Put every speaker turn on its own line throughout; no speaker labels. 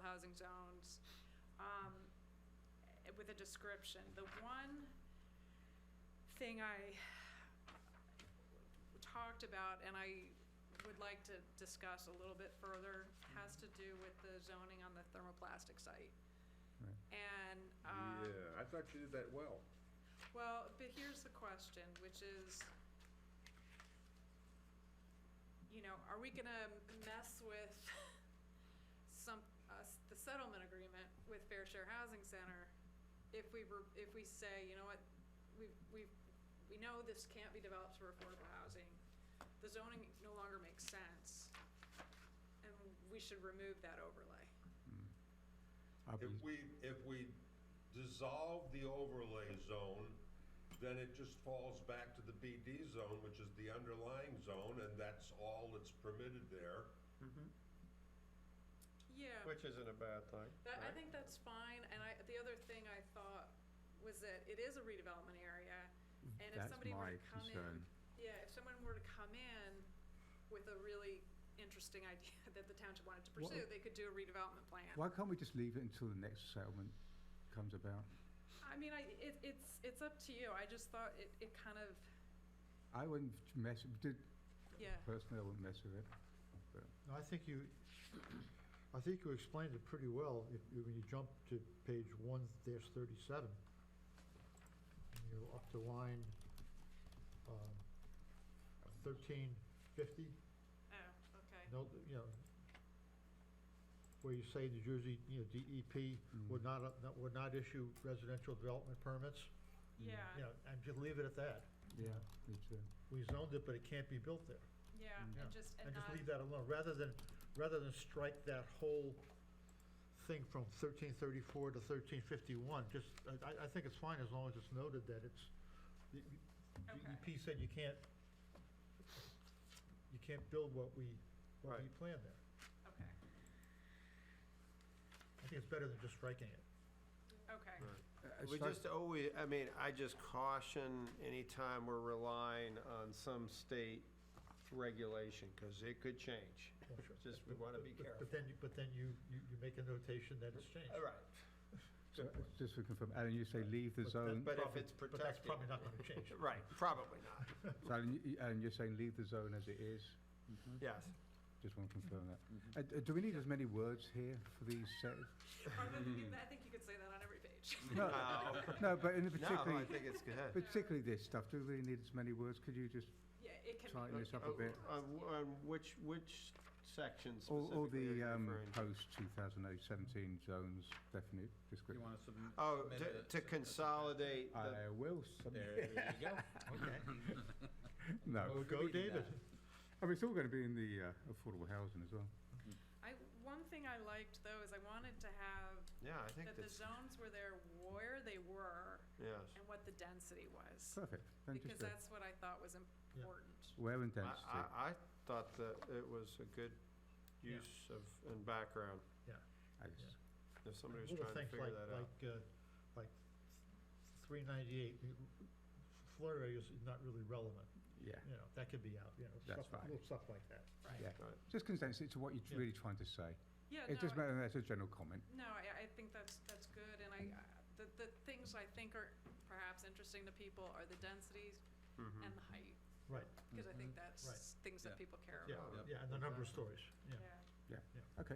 housing zones, um, eh, with a description. The one thing I talked about, and I would like to discuss a little bit further, has to do with the zoning on the thermoplastic site.
Right.
And, um,
Yeah, I thought you did that well.
well, but here's the question, which is, you know, are we gonna mess with some, us, the settlement agreement with Fair Share Housing Center? If we were, if we say, you know what, we, we, we know this can't be developed for affordable housing, the zoning no longer makes sense, and we should remove that overlay.
I'll
If
be-
we, if we dissolve the overlay zone, then it just falls back to the BD zone, which is the underlying zone, and that's all that's permitted there.
Yeah.
Which isn't a bad thing,
That, I
right?
think that's fine, and I, the other thing I thought was that it is a redevelopment area, and if
Mm-hmm. That's
somebody were
my
to come in,
concern.
yeah, if someone were to come in with a really interesting idea that the township wanted to
What-
pursue, they could do a redevelopment plan.
Why can't we just leave it until the next settlement comes about?
I mean, I, it, it's, it's up to you, I just thought it, it kind of,
I wouldn't mess, did-
yeah,
personally, I wouldn't mess with it.
No, I think you, I think you explained it pretty well if, you- when you jump to page one dash thirty-seven. And You're up to line, um, thirteen fifty,
oh, okay,
no, you know, where you say New Jersey, you know, DEP
Mm. Mm-hmm.
would not, uh, not- would not issue residential development permits. You
Mm,
yeah,
know, and just leave it at that.
Yeah, me too.
We zoned it, but it can't be built there.
yeah,
Mm.
and just, and
and
not,
just leave that alone, rather than, rather than strike that whole thing from thirteen thirty-four to thirteen fifty-one, just, I- I, I think it's fine as long as it's noted that it's, the
Okay.
EP E said you can't, you can't build what we, what we
Right.
planned there.
okay,
I think it's better than just striking it.
okay,
Uh,
We
start-
just always, I mean, I just caution anytime we're relying on some state regulation, because it could change.
Well, sure.
Just we wanna be
But- but-
careful.
But then, you- but then you, you, you make a notation that it's changed.
All right.
so, uh, Just to confirm, Alan, you say leave the
But that-
zone,
But if
Probably-
it's
But that's
protected,
probably not gonna change.
right, probably not,
so Alan, you- you- Alan, you're saying leave the zone as it is? Hmm.
yes.
Just want to confirm that. Uh, d- Do we need as many words here for these set?
Or the- you- I think you could say that on every page.
No,
No,
No, but in
no, I
particularly,
think it's good.
particularly this stuff, do we really need as many words? Could you just,
Yeah, it can be.
Tighten this up a
Oh,
bit.
On, on which, which section
all, all
specifically are
the
you
um,
referring to?
post 2017 zones definite description?
want to submit?
Oh, to- to consolidate the
I will
There
submit.
you go.
No,
Well, Go
Reading
David.
that.
I mean, it's all going to be in the uh, affordable housing as well.
I, one thing I liked though is I wanted to have
Yeah, I think
that the
that's,
zones were there where they were
yes.
and what the density was.
Perfect. Then
Because
just go.
that's what I thought was important.
Wear and
I,
density.
I, I thought that it was a good
Yeah.
use of, and background,
I just-
if somebody was
Little
trying to
things
figure
like-
that out.
Like, uh, like three ninety-eight, floor area is not really relevant,
Yeah,
you know, that could be out, you know,
That's
stuff,
fine.
little stuff like that.
yeah.
Right.
Just condense it to what you're
Yeah.
really trying to say.
Yeah,
It doesn't
no, I-
matter, that's a general comment.
no, I, I think that's, that's good and I, I- the, the things I think are perhaps interesting to people are the densities
Mhm.
and the height.
Right.
Cause I think
Hmm. Mm-hmm. Right.
that's things that
Yeah.
people care
Yeah,
about.
Yep.
yeah, and the number of stories, yeah.
Okay.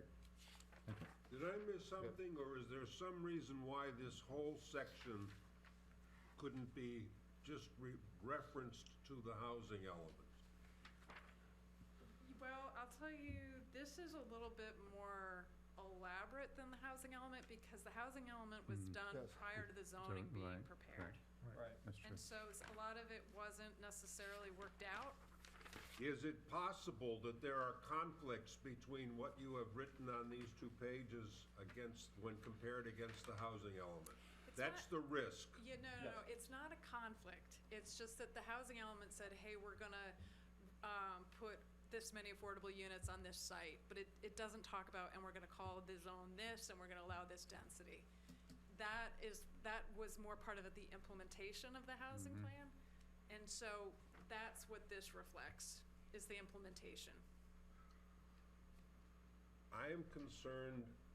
Did I miss something, or is there some reason why this whole section couldn't be just re- referenced to the housing element?
Well, I'll tell you, this is a little bit more elaborate than the housing element because the housing element was
Mm.
done
Yes.
prior to the zoning
Zone,
being
right,
prepared.
Right.
That's true.
And so s- a lot of it wasn't necessarily worked out.
Is it possible that there are conflicts between what you have written on these two pages against, when compared against the housing element?
It's
That's the risk.
Yeah, no, no, no, it's not a conflict. It's just that the housing element said, hey, we're gonna, um, put this many affordable units on this site, but it, it doesn't talk about, and we're gonna call the zone this, and we're gonna allow this density. That is, that was more part of the implementation of the housing plan, and so that's what this reflects, is the implementation.
I am concerned